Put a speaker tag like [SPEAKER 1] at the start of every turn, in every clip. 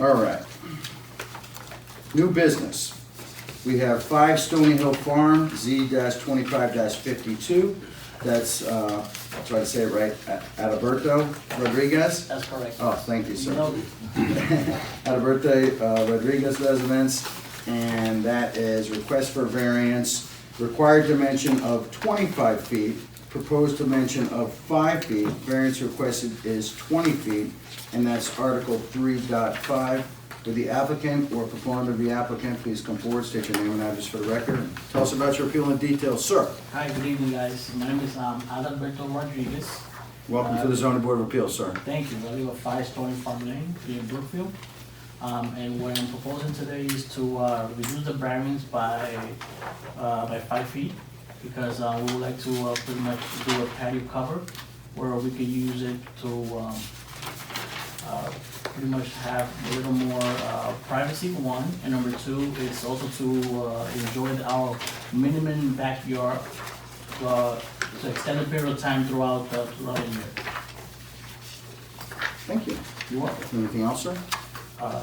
[SPEAKER 1] All right. New business. We have five Stony Hill Farm, Z twenty-five fifty-two. That's, uh, I'll try to say it right, A- Adalberto Rodriguez.
[SPEAKER 2] That's correct.
[SPEAKER 1] Oh, thank you, sir.
[SPEAKER 2] No,
[SPEAKER 1] Alberto uh, Rodriguez residence, and that is request for variance, required dimension of twenty-five feet, proposed dimension of five feet, variance requested is twenty feet, and that's Article 3.5. Would the applicant or proponent of the applicant please come forward, state your name and address for the record, and tell us about your appeal in detail, sir.
[SPEAKER 2] Hi, good evening, guys. My name is um, Adalberto Rodriguez.
[SPEAKER 1] Welcome to the zoning board of appeals, sir.
[SPEAKER 2] Thank you. I live at Five Stony Farm Lane here in Brookfield. Um, And what I'm proposing today is to uh, reduce the variance by, uh, by five feet because uh, we would like to uh, pretty much do a patio cover where we could use it to um, uh, pretty much have a little more uh, privacy, one. And number two, is also to uh, enjoy our minimum backyard uh, to extend a period of time throughout, the- throughout the year.
[SPEAKER 1] Thank you.
[SPEAKER 2] You're welcome.
[SPEAKER 1] Anything else, sir?
[SPEAKER 2] uh,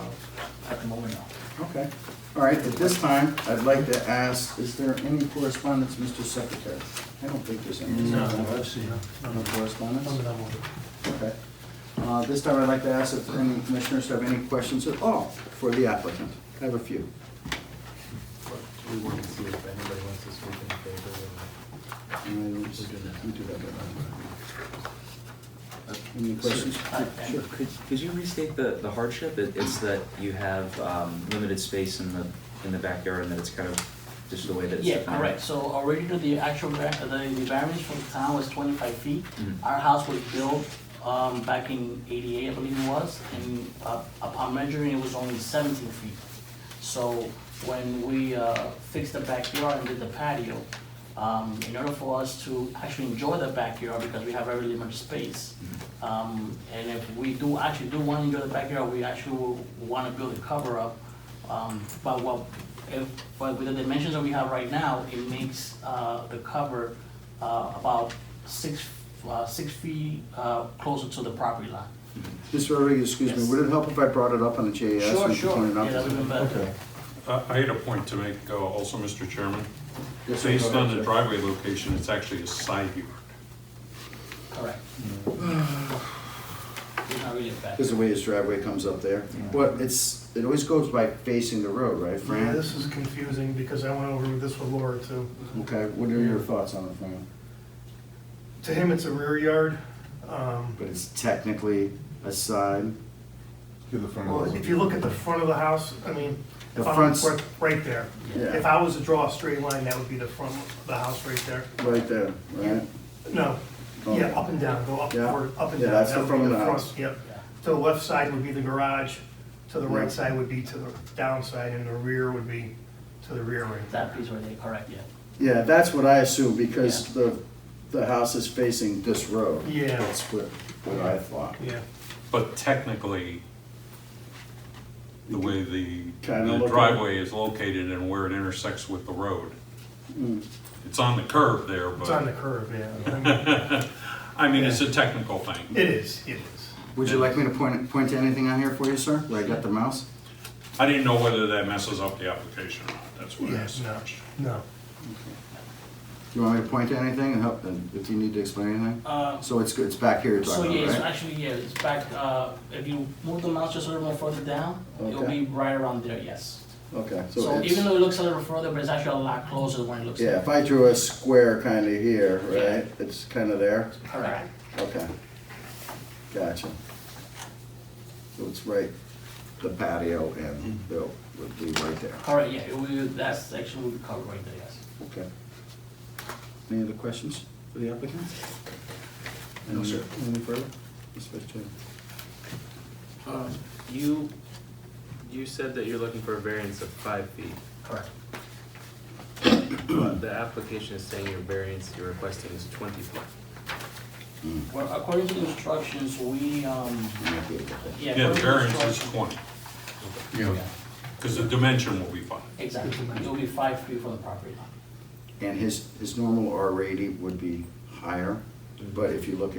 [SPEAKER 2] at the moment now.
[SPEAKER 1] Okay. All right, at this time, I'd like to ask, is there any correspondence, Mr. Secretary? I don't think there's any.
[SPEAKER 3] I've seen it.
[SPEAKER 1] No correspondence?
[SPEAKER 3] that one.
[SPEAKER 1] Okay. Uh, This time, I'd like to ask if any commissioners have any questions at all for the applicant. I have a few.
[SPEAKER 3] We want to see if anybody wants to speak in favor of
[SPEAKER 1] And I don't-
[SPEAKER 3] We'll do that.
[SPEAKER 1] we do that later. Any questions? Sure.
[SPEAKER 4] Could, could you restate the, the hardship? It, it's that you have, um, limited space in the, in the backyard and that it's kind of just the way that it's
[SPEAKER 2] Yeah,
[SPEAKER 4] defined?
[SPEAKER 2] correct, so originally the actual, va- the, the variance from the town was twenty-five feet.
[SPEAKER 4] Mhm.
[SPEAKER 2] Our house was built, um, back in eighty-eight, I believe it was, and uh, upon measuring, it was only seventeen feet. So when we, uh, fixed the backyard and did the patio, um, in order for us to actually enjoy the backyard, because we have very limited space, um, and if we do, actually do want to enjoy the backyard, we actually will wanna build a cover-up, um, but what, if, but with the dimensions that we have right now, it makes, uh, the cover, uh, about six, uh, six feet, uh, closer to the property line.
[SPEAKER 1] Mr. Rodriguez, excuse me,
[SPEAKER 2] Yes.
[SPEAKER 1] would it help if I brought it up on the JAS?
[SPEAKER 2] Sure,
[SPEAKER 1] and you
[SPEAKER 2] sure,
[SPEAKER 1] pointed it
[SPEAKER 2] yeah,
[SPEAKER 1] out?
[SPEAKER 2] that would've been better.
[SPEAKER 5] Uh, I had a point to make uh, also, Mr. Chairman.
[SPEAKER 1] Yes, sir, go
[SPEAKER 5] Based
[SPEAKER 1] ahead,
[SPEAKER 5] on the
[SPEAKER 1] sir.
[SPEAKER 5] driveway location, it's actually a side yard.
[SPEAKER 2] Correct. Mm. It's not really a bad.
[SPEAKER 1] Because the way his driveway comes up there.
[SPEAKER 4] Yeah.
[SPEAKER 1] But it's, it always goes by facing the road, right,
[SPEAKER 3] it. Yeah,
[SPEAKER 1] Fran?
[SPEAKER 3] this is confusing because I went over this with Laura too.
[SPEAKER 1] Okay, what are your thoughts on it, Fran?
[SPEAKER 3] To him, it's a rear yard. um,
[SPEAKER 1] But it's technically a side.
[SPEAKER 6] To the front
[SPEAKER 3] Well,
[SPEAKER 6] of the
[SPEAKER 3] if you look at the front of the house, I mean,
[SPEAKER 1] The
[SPEAKER 3] if I'm,
[SPEAKER 1] front's-
[SPEAKER 3] right- right there.
[SPEAKER 1] Yeah.
[SPEAKER 3] If I was to draw a straight line, that would be the front of the house right there.
[SPEAKER 1] Right there, right?
[SPEAKER 3] No,
[SPEAKER 1] Oh.
[SPEAKER 3] yeah, up and down, go up,
[SPEAKER 1] Yeah.
[SPEAKER 3] or up and down.
[SPEAKER 1] Yeah, that's the
[SPEAKER 3] That would be
[SPEAKER 1] front of the
[SPEAKER 3] front,
[SPEAKER 1] house.
[SPEAKER 3] Yep.
[SPEAKER 2] Yeah.
[SPEAKER 3] To the left side would be the garage, to the
[SPEAKER 1] Yeah.
[SPEAKER 3] right side would be to the downside, and the rear would be to the rear right there.
[SPEAKER 2] That piece right there, correct, yeah.
[SPEAKER 1] Yeah, that's what I assume, because the, the house is facing this road.
[SPEAKER 3] Yeah.
[SPEAKER 1] That's what, what I thought.
[SPEAKER 3] Yeah.
[SPEAKER 5] But technically, the way the
[SPEAKER 1] Kinda
[SPEAKER 5] the
[SPEAKER 1] look
[SPEAKER 5] driveway is located and where it intersects with the road,
[SPEAKER 1] Mm.
[SPEAKER 5] it's on the curve there,
[SPEAKER 3] It's on the
[SPEAKER 5] but,
[SPEAKER 3] curve, yeah.
[SPEAKER 5] I mean, it's a technical thing.
[SPEAKER 3] It is, it is.
[SPEAKER 1] Would you like me to point, point to anything on here for you, sir, where I got the mouse?
[SPEAKER 5] I didn't know whether that messes up the application or not, that's what I
[SPEAKER 3] Yes,
[SPEAKER 5] asked.
[SPEAKER 3] no, no.
[SPEAKER 1] Do you want me to point to anything and help, and if you need to explain anything?
[SPEAKER 2] Uh,
[SPEAKER 1] So it's, it's back here you're
[SPEAKER 2] So
[SPEAKER 1] talking
[SPEAKER 2] yeah,
[SPEAKER 1] about,
[SPEAKER 2] it's
[SPEAKER 1] right?
[SPEAKER 2] actually, yeah, it's back, uh, if you move the mouse just a little more further down, it'll
[SPEAKER 1] Okay.
[SPEAKER 2] be right around there, yes.
[SPEAKER 1] Okay, so
[SPEAKER 2] So even
[SPEAKER 1] it's,
[SPEAKER 2] though it looks a little further, but it's actually a lot closer than when it looks.
[SPEAKER 1] yeah, if I drew a square kind of here, right, it's kind of there?
[SPEAKER 2] Correct.
[SPEAKER 1] Okay. Gotcha. So it's right, the patio and the, would be right there.
[SPEAKER 2] Correct, yeah, it will, that section will be covered right there, yes.
[SPEAKER 1] Okay. Any other questions for the applicant? No, sir. Any further? Mr. Vice Chair.
[SPEAKER 7] Um, You, you said that you're looking for a variance of five feet.
[SPEAKER 2] Correct.
[SPEAKER 7] but The application is saying your variance you're requesting is twenty feet.
[SPEAKER 2] Well, according to the instructions, we, um,
[SPEAKER 1] You might be able to-
[SPEAKER 2] yeah.
[SPEAKER 5] Yeah, the
[SPEAKER 2] according to
[SPEAKER 5] variance is
[SPEAKER 2] instructions-
[SPEAKER 5] twenty,
[SPEAKER 6] Yeah.
[SPEAKER 5] because the dimension will be fine.
[SPEAKER 2] Exactly, it'll be five feet from the property line.
[SPEAKER 1] And his, his normal R rating would be higher, but if you look